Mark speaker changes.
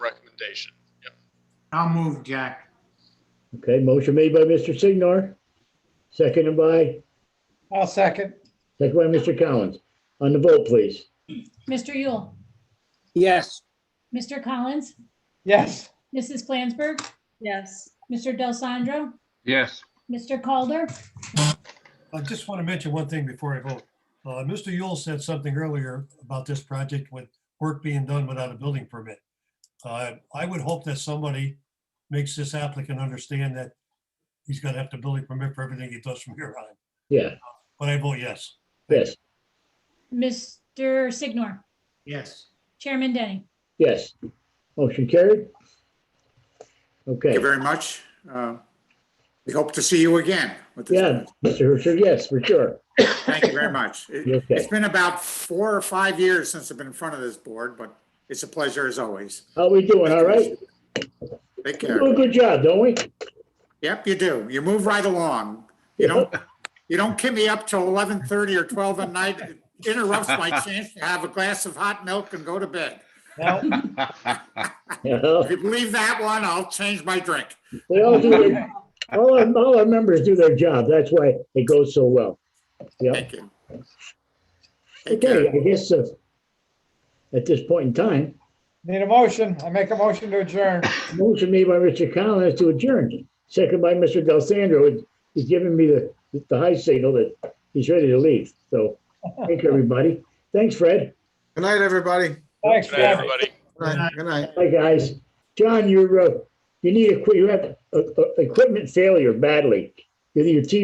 Speaker 1: I'll move, Jack.
Speaker 2: Okay, motion made by Mr. Signor, seconded by,
Speaker 3: I'll second.
Speaker 2: seconded by Mr. Collins. On the vote, please.
Speaker 4: Mr. Yule,
Speaker 5: yes,
Speaker 4: Mr. Collins,
Speaker 3: Yes,
Speaker 4: Mrs. Flansburgh,
Speaker 6: yes,
Speaker 4: Mr. Del Sandro,
Speaker 7: yes,
Speaker 4: Mr. Calder.
Speaker 8: I just want to mention one thing before I vote. Uh, Mr. Yule said something earlier about this project with work being done without a building permit. Uh, I would hope that somebody makes this applicant understand that he's gonna have to building permit for everything he does from here on.
Speaker 2: Yeah,
Speaker 8: But I vote yes.
Speaker 2: yes,
Speaker 4: Mr. Signor,
Speaker 1: Yes.
Speaker 4: Chairman Denny.
Speaker 2: yes. Motion carried.
Speaker 9: Thank
Speaker 2: Okay,
Speaker 9: you very much. Uh, We hope to see you again with this.
Speaker 2: yeah, Mr. Herzog, yes, for sure.
Speaker 9: Thank you very much. It-
Speaker 2: You're okay.
Speaker 9: It's been about four or five years since I've been in front of this board, but it's a pleasure as always.
Speaker 2: How we doing? All right?
Speaker 9: Take
Speaker 2: We
Speaker 9: care.
Speaker 2: do a good job, don't we?
Speaker 9: Yep, you do. You move right along. You don't, you don't keep me up till 11:30 or 12 at night. It Interrupts my chance to have a glass of hot milk and go to bed.
Speaker 3: now,
Speaker 2: Yeah.
Speaker 9: If you believe that one, I'll change my drink.
Speaker 2: They all do, their- all, our- all our members do their job. That's why it goes so well. Yep.
Speaker 9: Thank you. Take
Speaker 2: Okay,
Speaker 9: care.
Speaker 2: I guess, uh, at this point in time,
Speaker 3: need a motion. I make a motion to adjourn.
Speaker 2: Motion made by Mr. Collins to adjourn, second by Mr. Del Sandro. He's giving me the, the high signal that he's ready to leave. So, thank you, everybody. Thanks, Fred.
Speaker 10: Good night, everybody.
Speaker 3: Thanks,
Speaker 7: Good night,
Speaker 3: Jeff.
Speaker 7: everybody.
Speaker 10: Good night. Good night.
Speaker 2: Hi, guys. uh, John, you're, uh, you need a, you have a, a- equipment failure badly. Either your TV